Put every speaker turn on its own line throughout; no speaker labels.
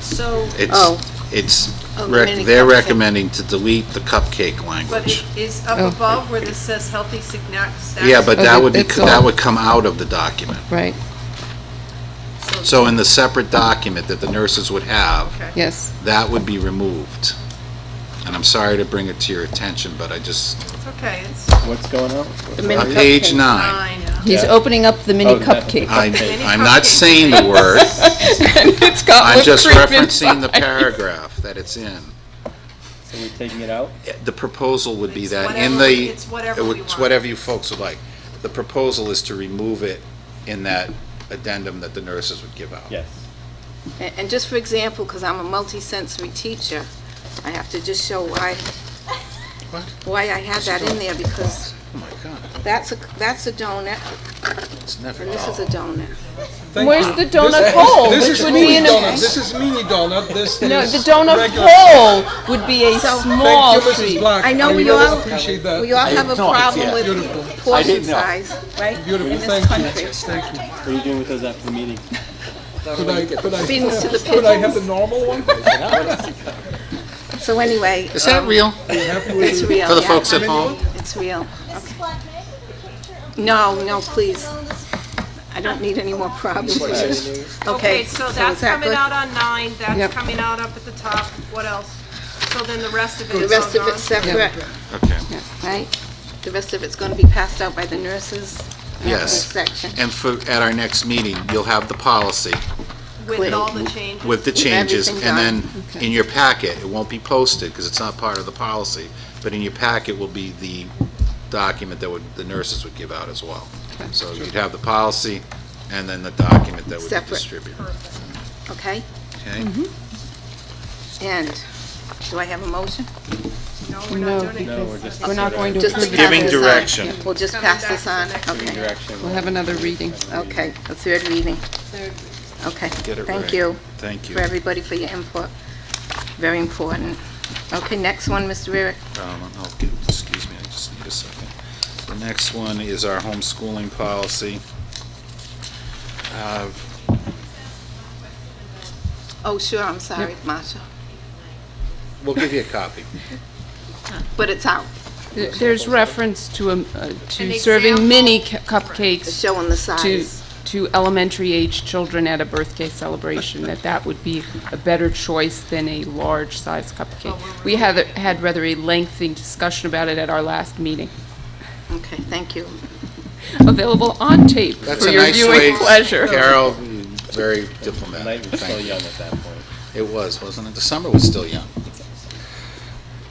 So,
It's,
Oh.
it's,
Oh,
rec-
mini
they're
cupcake.
recommending to delete the cupcake
but
language.
it is up
Oh.
above where this says healthy snack- snacks.
Yeah, but
Oh,
that
that-
would be,
it's
that
all-
would come out of the document.
Right,
So in the separate document that the nurses would have,
Okay.
yes.
that would be removed. And I'm sorry to bring it to your attention, but I just,
It's okay, it's
What's going on?
The mini
on uh, page
cupcake.
nine,
fine.
He's
Yeah.
opening up the mini
Oh, that-
cupcake.
I,
Mini
I'm not
cupcake.
saying the word,
It's got
I'm
whipped
just
cream
referencing the
inside.
paragraph that it's in.
So we're taking it out?
The proposal would be
It's
that in
whatever-
the.
it's whatever
it would-
we
It's
want.
whatever you folks would like. The proposal is to remove it in that addendum that the nurses would give out.
Yes.
And and just for example, because I'm a multisensory teacher, I have to just show why,
What?
why I have that in there, because
Oh my God,
that's a, that's a donut,
it's never.
and this is a donut.
Where's the donut hole?
This
Which
is
would be
mini
in
donut,
a,
this is mini donut, this
no,
is
the donut
regular.
hole would be a small
Thank you, Mrs.
tree.
Black.
I know
I
we
really
all-
appreciate
We
that.
all have a problem with
Beautiful.
portion size, right?
Beautiful,
In this
thank
country.
you. Thank you.
What are you doing with those after the meeting?
Could I, could I,
Feedings to the
could I have the
pigeons.
normal one?
So anyway.
Is that
um,
real?
It's real,
For the
yeah.
folks at home?
It's real.
Mrs. Black, may I take a picture of the
No, no, please,
on this
I don't need any more problems.
Okay,
Okay,
so
so
that's
is that
coming
good?
out on nine, that's
Yep.
coming out up at the top, what else? So then the rest of it
The
is
rest of
all
it's
gone?
separate,
Okay.
right? The rest of it's going to be passed out by the nurses. after
Yes.
this Section.
And for, at our next meeting, you'll have the policy
With
Quit.
all the changes.
with the changes. And
Everything
then
done.
in your packet, it won't be posted because it's not part of the policy, but in your packet will be the document that would, the nurses would give out as well. So you'd have the policy and then the document that would be
Separate. Mm-hmm.
distributed.
Okay,
Okay?
and do I have a motion?
No, we're not doing it.
No, we're just
We're not going to
Just to
approve it.
pass
Giving
this on.
direction.
Yeah, We'll just
Coming
pass
back
this
to the
on,
next
okay,
direction.
We'll have another reading.
okay, a third reading. Okay,
Get it right.
thank you
Thank you.
for everybody for your input, very important. Okay, next one, Mr. Rurick.
Um, I'll get- excuse me, I just need a second. The next one is our homeschooling policy. Uh,
Oh, sure, I'm sorry, Marcia,
We'll give you a copy.
but it's out,
There- There's reference to, um, uh,
An
to serving mini cu-
it's
cupcakes
showing the
to,
size.
to elementary age children at a birthday celebration, that that would be a better choice than a large size cupcake. We had, had rather a lengthy discussion about it at our last meeting,
Okay, thank you.
available on tape
That's
for
a
your
nice
viewing
way,
pleasure.
Carol, very
The
diplomatic,
night was
thank
still
you.
young at that point.
It was, wasn't it? The summer was still young.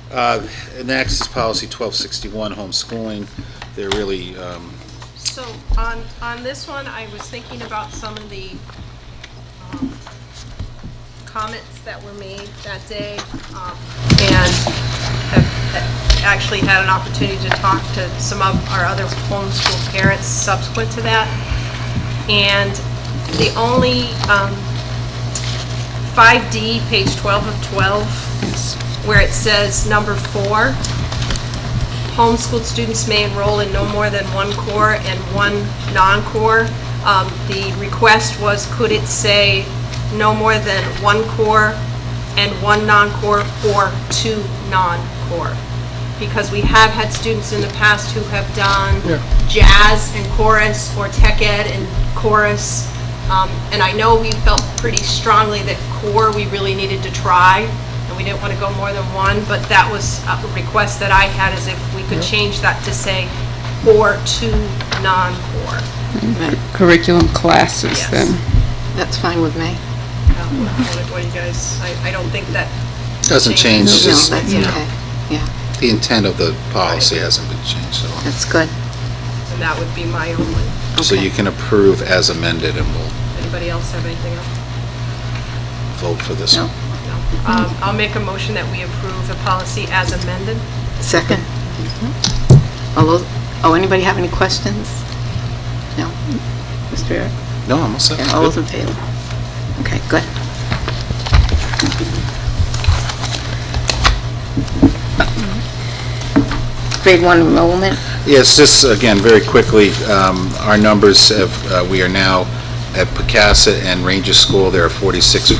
Uh, Next is policy 1261, homeschooling. They're really, um,
So on, on this one, I was thinking about some of the um, comments that were made that day, um, and have have actually had an opportunity to talk to some of our other homeschool parents subsequent to that. And the only, um, 5D, page 12 of 12, where it says number four, homeschooled students may enroll in no more than one core and one non-core. Um, The request was, could it say no more than one core and one non-core or two non-core? Because we have had students in the past who have done jazz and chorus or tech ed and chorus. Um, And I know we felt pretty strongly that core, we really needed to try and we didn't want to go more than one, but that was a request that I had, is if we could change that to say, or two non-core.
Curriculum classes, then.
That's fine with me.
Um, What what do you guys, I, I don't think that,
doesn't change,
No,
just
that's okay,
the intent of the policy hasn't been changed at all.
that's good.
and that would be my only,
So you can approve as amended and we'll
anybody else have anything else?
vote for this one.
No. Um, I'll make a motion that we approve the policy as amended.
Second. All those, oh, anybody have any questions? No? Mr. Barrett?
No, I'm all set.
Yeah, all those in favor? Okay, good. Grade one enrollment,
Yes, just again, very quickly, um, our numbers have, uh, we are now at Pecasset and Ranger School, there are 46